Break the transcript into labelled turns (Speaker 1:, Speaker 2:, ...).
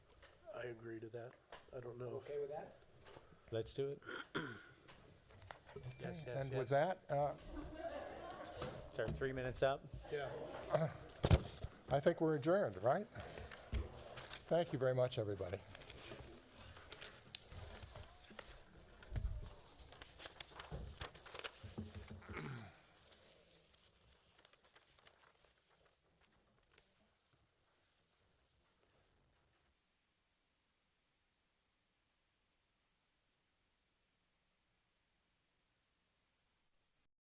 Speaker 1: agree to that. I don't know. if-
Speaker 2: Okay with that?
Speaker 3: Let's do it.
Speaker 1: Yes, yes,
Speaker 4: And with
Speaker 1: yes.
Speaker 4: that, uh,
Speaker 3: It's our three minutes up.
Speaker 1: Yeah.
Speaker 4: I think we're adjourned, right? Thank you very much, everybody.